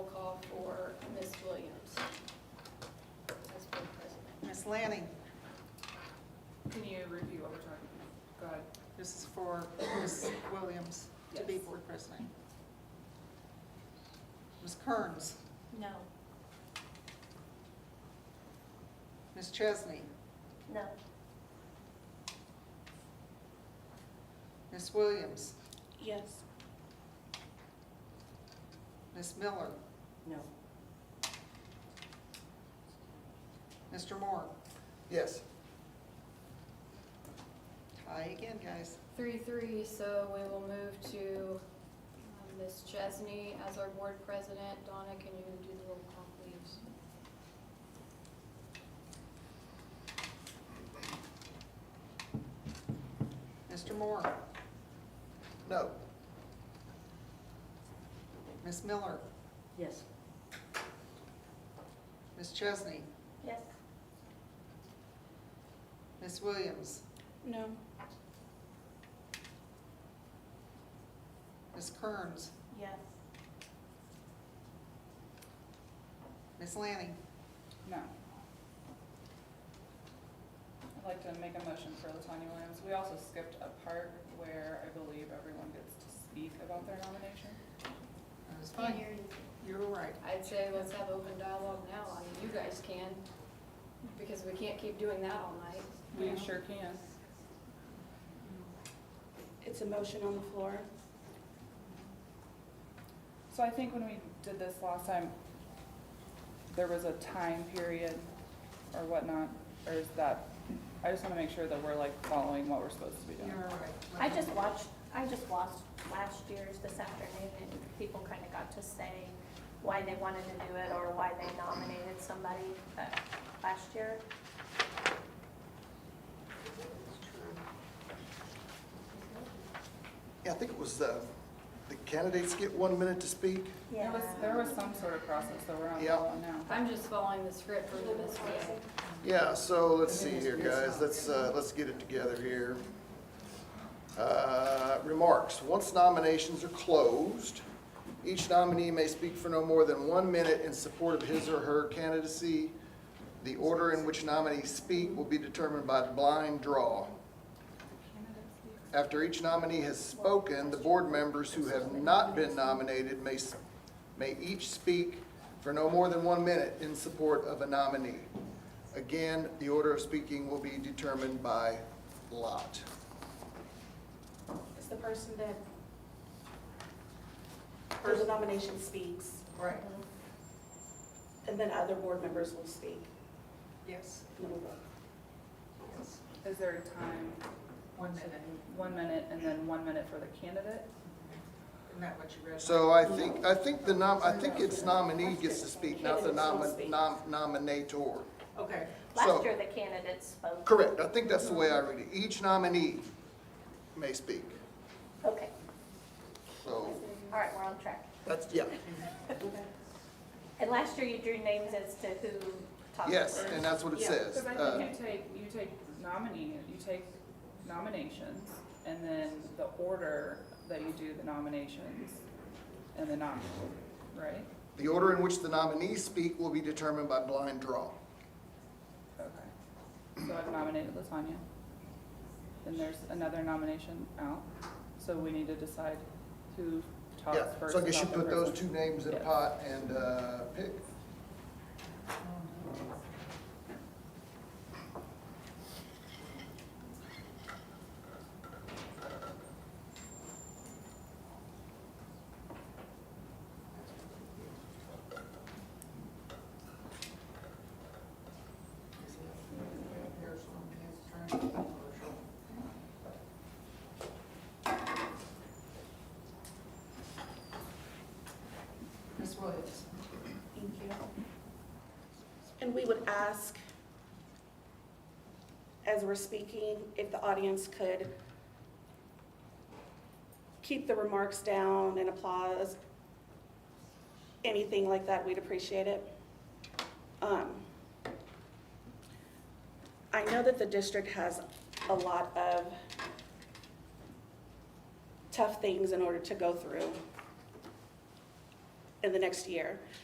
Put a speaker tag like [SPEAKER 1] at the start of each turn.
[SPEAKER 1] Ms. Lanning,
[SPEAKER 2] Can you review what we're talking about? Go ahead.
[SPEAKER 1] this is for Ms. Williams to be
[SPEAKER 2] Yes.
[SPEAKER 1] board president. Ms. Kearns,
[SPEAKER 3] No,
[SPEAKER 1] Ms. Chesney,
[SPEAKER 3] no,
[SPEAKER 1] Ms. Williams,
[SPEAKER 3] yes,
[SPEAKER 1] Ms. Miller,
[SPEAKER 2] No.
[SPEAKER 1] Mr. Moore.
[SPEAKER 4] Yes.
[SPEAKER 1] Tie again, guys.
[SPEAKER 5] Three, three, so we will move to um, Ms. Chesney as our board president. Donna, can you do the roll call, please?
[SPEAKER 1] Mr. Moore,
[SPEAKER 4] No.
[SPEAKER 1] Ms. Miller,
[SPEAKER 2] Yes.
[SPEAKER 1] Ms. Chesney,
[SPEAKER 3] yes,
[SPEAKER 1] Ms. Williams,
[SPEAKER 3] no,
[SPEAKER 1] Ms. Kearns,
[SPEAKER 3] yes,
[SPEAKER 1] Ms. Lanning,
[SPEAKER 2] No. I'd like to make a motion for Latonya Williams. We also skipped a part where I believe everyone gets to speak about their nomination.
[SPEAKER 1] that was fine, you were right.
[SPEAKER 5] I'd say let's have open dialogue now. I mean, you guys can, because we can't keep doing that all night.
[SPEAKER 2] We sure can.
[SPEAKER 3] it's a motion on the floor.
[SPEAKER 2] So I think when we did this last time, there was a time period or whatnot, or is that, I just want to make sure that we're like following what we're supposed to be
[SPEAKER 1] You
[SPEAKER 2] doing.
[SPEAKER 1] were right.
[SPEAKER 3] I just watched, I just watched last year's this afternoon, and people kind of got to say why they wanted to do it, or why they nominated somebody, but last year,
[SPEAKER 4] Yeah, I think it was, uh, the candidates get one minute to speak.
[SPEAKER 3] yeah.
[SPEAKER 2] There was, there was some sort of process, so we're on
[SPEAKER 4] Yeah.
[SPEAKER 2] that one now.
[SPEAKER 5] I'm just following the script for the MSBA.
[SPEAKER 4] Yeah, so let's see here, guys. Let's, uh, let's get it together here. Uh, remarks. Once nominations are closed, each nominee may speak for no more than one minute in support of his or her candidacy. The order in which nominees speak will be determined by blind draw. After each nominee has spoken, the board members who have not been nominated may, s- may each speak for no more than one minute in support of a nominee. Again, the order of speaking will be determined by lot.
[SPEAKER 6] It's the person that, for the nomination speaks,
[SPEAKER 1] Right,
[SPEAKER 6] and then other board members will speak.
[SPEAKER 1] yes,
[SPEAKER 6] and then we'll vote.
[SPEAKER 1] yes.
[SPEAKER 2] Is there a time?
[SPEAKER 1] One minute,
[SPEAKER 2] One minute and then one minute for the candidate?
[SPEAKER 1] isn't that what you read?
[SPEAKER 4] So I think, I think the nom, I think it's nominee gets to speak, not the nomi- nom, nominator.
[SPEAKER 1] Okay,
[SPEAKER 4] So-
[SPEAKER 3] Last year, the candidates spoke.
[SPEAKER 4] Correct, I think that's the way I read it. Each nominee may speak,
[SPEAKER 3] Okay,
[SPEAKER 4] so
[SPEAKER 3] all right, we're on track.
[SPEAKER 4] that's, yeah.
[SPEAKER 3] And last year, you drew names as to who talked first.
[SPEAKER 4] Yes, and that's what it says.
[SPEAKER 2] Because I
[SPEAKER 4] Uh,
[SPEAKER 2] think you take, you take nominee, you take nominations, and then the order that you do the nominations and the nominee, right?
[SPEAKER 4] The order in which the nominees speak will be determined by blind draw.
[SPEAKER 2] Okay. So I've nominated Latanya. Then there's another nomination out, so we need to decide who talks
[SPEAKER 4] Yeah,
[SPEAKER 2] first
[SPEAKER 4] so I guess you
[SPEAKER 2] about the
[SPEAKER 4] put those two
[SPEAKER 2] person.
[SPEAKER 4] names in a
[SPEAKER 2] Yeah.
[SPEAKER 4] pot and, uh, pick.
[SPEAKER 1] Ms. Williams?
[SPEAKER 6] Thank you. And we would ask, as we're speaking, if the audience could keep the remarks down and applause, anything like that, we'd appreciate it. Um, I know that the district has a lot of tough things in order to go through in the next year.